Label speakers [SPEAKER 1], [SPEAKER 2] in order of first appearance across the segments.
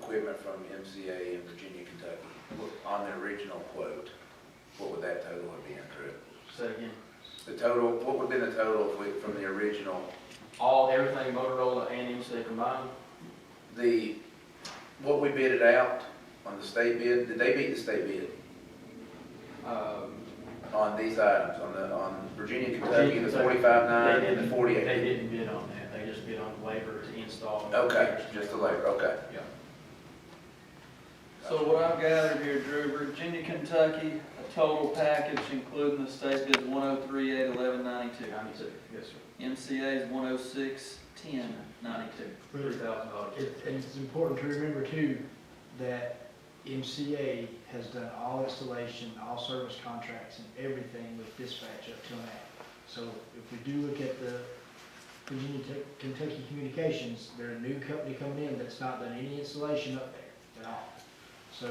[SPEAKER 1] quoted from MCA in Virginia, Kentucky, what- on the original quote, what would that total have been, Drew?
[SPEAKER 2] Say again.
[SPEAKER 1] The total, what would have been the total if we- from the original?
[SPEAKER 2] All, everything Motorola and MCA combined,
[SPEAKER 1] The, what we bid it out on the state bid, did they beat the state bid
[SPEAKER 2] um,
[SPEAKER 1] on these items, on the, on Virginia, Kentucky, the
[SPEAKER 2] Virginia, Kentucky.
[SPEAKER 1] forty-five nine
[SPEAKER 2] They
[SPEAKER 1] and the
[SPEAKER 2] didn't-
[SPEAKER 1] forty-eight?
[SPEAKER 2] They didn't bid on that, they just bid on labor to install.
[SPEAKER 1] Okay, just the labor, okay.
[SPEAKER 2] Yeah.
[SPEAKER 3] So what I've gathered here, Drew, Virginia, Kentucky, a total package including the state bid one oh three eight eleven ninety-two.
[SPEAKER 2] Ninety-two, yes, sir.
[SPEAKER 3] MCA is one oh six ten ninety-two.
[SPEAKER 4] But
[SPEAKER 2] Three thousand dollars.
[SPEAKER 4] it- it's important to remember too, that MCA has done all installation, all service contracts and everything with dispatch up till now. So if we do look at the Virginia Tech- Kentucky Communications, they're a new company coming in that's not done any installation up there at all. So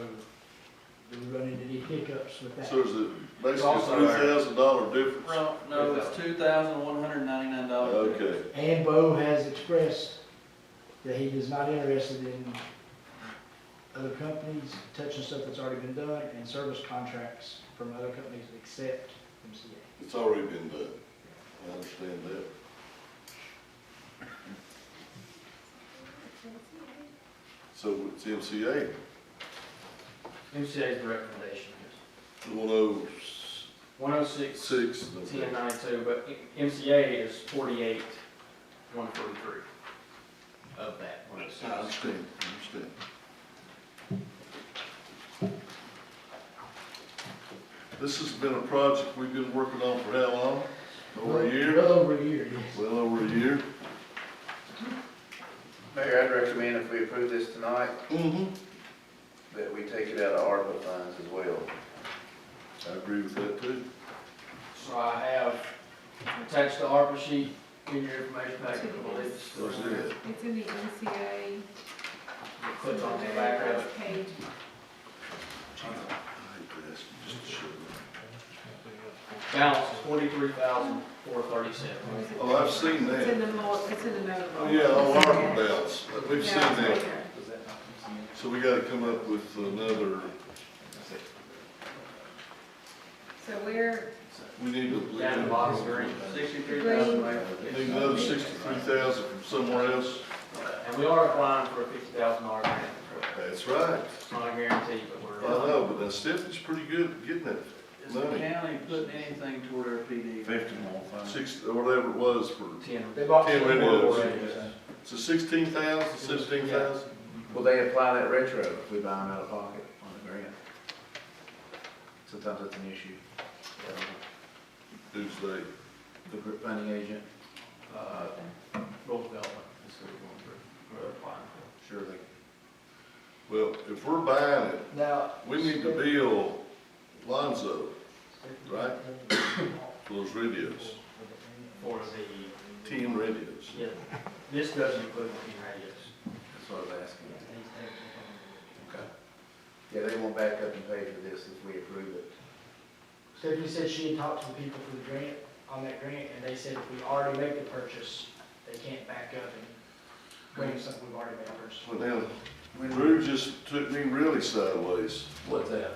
[SPEAKER 4] do we run into any hiccups with that?
[SPEAKER 5] So is it basically
[SPEAKER 2] Also,
[SPEAKER 5] three thousand dollar difference?
[SPEAKER 3] Well, no, it's two thousand one hundred ninety-nine dollars.
[SPEAKER 5] Okay,
[SPEAKER 4] And Bo has expressed that he is not interested in other companies touching stuff that's already been done and service contracts from other companies except MCA.
[SPEAKER 5] it's already been done. I understand that. So it's MCA,
[SPEAKER 2] MCA's recommendation, yes.
[SPEAKER 5] one oh
[SPEAKER 2] One oh six,
[SPEAKER 5] six,
[SPEAKER 2] ten ninety-two, but MCA is forty-eight, one forty-three of that one oh
[SPEAKER 5] I
[SPEAKER 2] six.
[SPEAKER 5] understand, I understand. This has been a project we've been working on for how long? Over a year?
[SPEAKER 4] Well over a year, yes.
[SPEAKER 5] Well, over a year.
[SPEAKER 1] Mayor, I'd recommend if we approve this tonight,
[SPEAKER 5] Mm-hmm.
[SPEAKER 1] that we take it out of ARPA funds as well.
[SPEAKER 5] I agree with that too.
[SPEAKER 2] So I have attached the ARPA sheet in your information packet, I believe. it's-
[SPEAKER 5] That's it.
[SPEAKER 6] It's in the E NCA.
[SPEAKER 2] Click on the back of it.
[SPEAKER 6] Page,
[SPEAKER 5] I hate to ask you just to show up.
[SPEAKER 2] Balance is forty-three thousand, four thirty-seven.
[SPEAKER 6] what is it?
[SPEAKER 5] Oh, I've seen
[SPEAKER 6] It's in
[SPEAKER 5] that.
[SPEAKER 6] the mo, it's in the note.
[SPEAKER 5] Oh, yeah, oh, ARPA balance. We've seen
[SPEAKER 6] Yeah, it's
[SPEAKER 5] that.
[SPEAKER 6] there.
[SPEAKER 5] So we gotta come up with another,
[SPEAKER 6] So we're,
[SPEAKER 5] we need to.
[SPEAKER 2] Down the bottom green.
[SPEAKER 3] Sixty-three thousand eight.
[SPEAKER 5] Need another sixty-three thousand from somewhere else.
[SPEAKER 2] And we are applying for a fifty thousand dollar grant.
[SPEAKER 5] That's right.
[SPEAKER 2] It's not a guarantee, but
[SPEAKER 5] I
[SPEAKER 2] we're.
[SPEAKER 5] know, but that stipend's pretty good at getting that
[SPEAKER 3] Is the county putting anything toward our PD?
[SPEAKER 1] Fifty more
[SPEAKER 5] six, or whatever it was for,
[SPEAKER 2] Ten. They bought
[SPEAKER 5] Ten
[SPEAKER 2] ten more
[SPEAKER 5] radios.
[SPEAKER 2] already.
[SPEAKER 5] so sixteen thousand, seventeen thousand?
[SPEAKER 1] Will they apply that retro if we buy them out of pocket on the grant? Sometimes that's an issue.
[SPEAKER 5] Who's they?
[SPEAKER 1] The group funding agent,
[SPEAKER 2] Uh, Roosevelt, that's what we're going through. We're applying
[SPEAKER 1] sure they.
[SPEAKER 5] Well, if we're buying it,
[SPEAKER 4] Now.
[SPEAKER 5] we need to bill Lonzo right? for those radios,
[SPEAKER 2] for the,
[SPEAKER 5] ten radios.
[SPEAKER 2] yeah, this doesn't include the ten radios.
[SPEAKER 1] That's what I was asking. Okay. Yeah, they won't back up and pay for this if we approve it.
[SPEAKER 4] Stephanie said she had talked to the people for the grant, on that grant, and they said if we already make the purchase, they can't back up and bring something we've already made a purchase.
[SPEAKER 5] Well, now, Drew just took me really sideways.
[SPEAKER 1] What's that?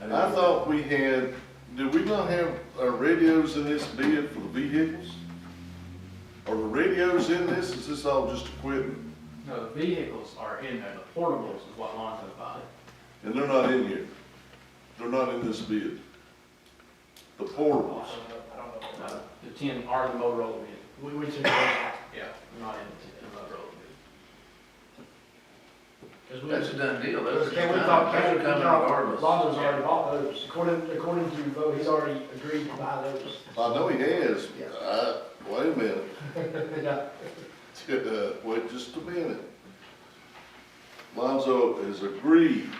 [SPEAKER 5] I thought we had, did we not have our radios in this bid for the vehicles? Are the radios in this, is this all just equipment?
[SPEAKER 2] No, the vehicles are in there, the portables is what Lonzo bought.
[SPEAKER 5] And they're not in here, they're not in this bid. The
[SPEAKER 4] I
[SPEAKER 5] portables,
[SPEAKER 4] don't know, I don't know. what
[SPEAKER 2] Uh,
[SPEAKER 4] that-
[SPEAKER 2] The ten are the Motorola bid.
[SPEAKER 4] We went to the,
[SPEAKER 2] Yeah. Not in the in the Motorola bid.
[SPEAKER 4] because we.
[SPEAKER 1] That's a done deal.
[SPEAKER 4] Because
[SPEAKER 1] Those are
[SPEAKER 4] Ken, we
[SPEAKER 1] coming-
[SPEAKER 4] thought,
[SPEAKER 1] those
[SPEAKER 4] Ken,
[SPEAKER 1] are
[SPEAKER 4] we
[SPEAKER 1] coming
[SPEAKER 4] thought,
[SPEAKER 1] regardless.
[SPEAKER 4] Lonzo's already bought those, according, according to Bo, he's already agreed to buy those.
[SPEAKER 5] I know he has,
[SPEAKER 4] Yeah.
[SPEAKER 5] I, wait a minute,
[SPEAKER 4] Yeah.
[SPEAKER 5] Uh, wait just a minute. Lonzo has agreed,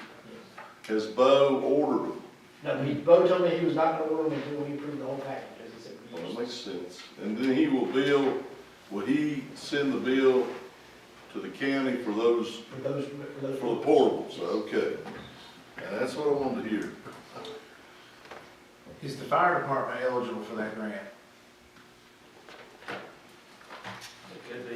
[SPEAKER 5] has Bo ordered them?
[SPEAKER 4] No, he, Bo told me he was not gonna order them until we approved the whole package, as he said. we
[SPEAKER 5] Well,
[SPEAKER 4] used-
[SPEAKER 5] that makes sense. And then he will bill, will he send the bill to the county for those,
[SPEAKER 4] For those, for
[SPEAKER 5] for
[SPEAKER 4] those.
[SPEAKER 5] the portables? Okay. And that's what I wanted to hear.
[SPEAKER 7] Is the fire department eligible for that grant?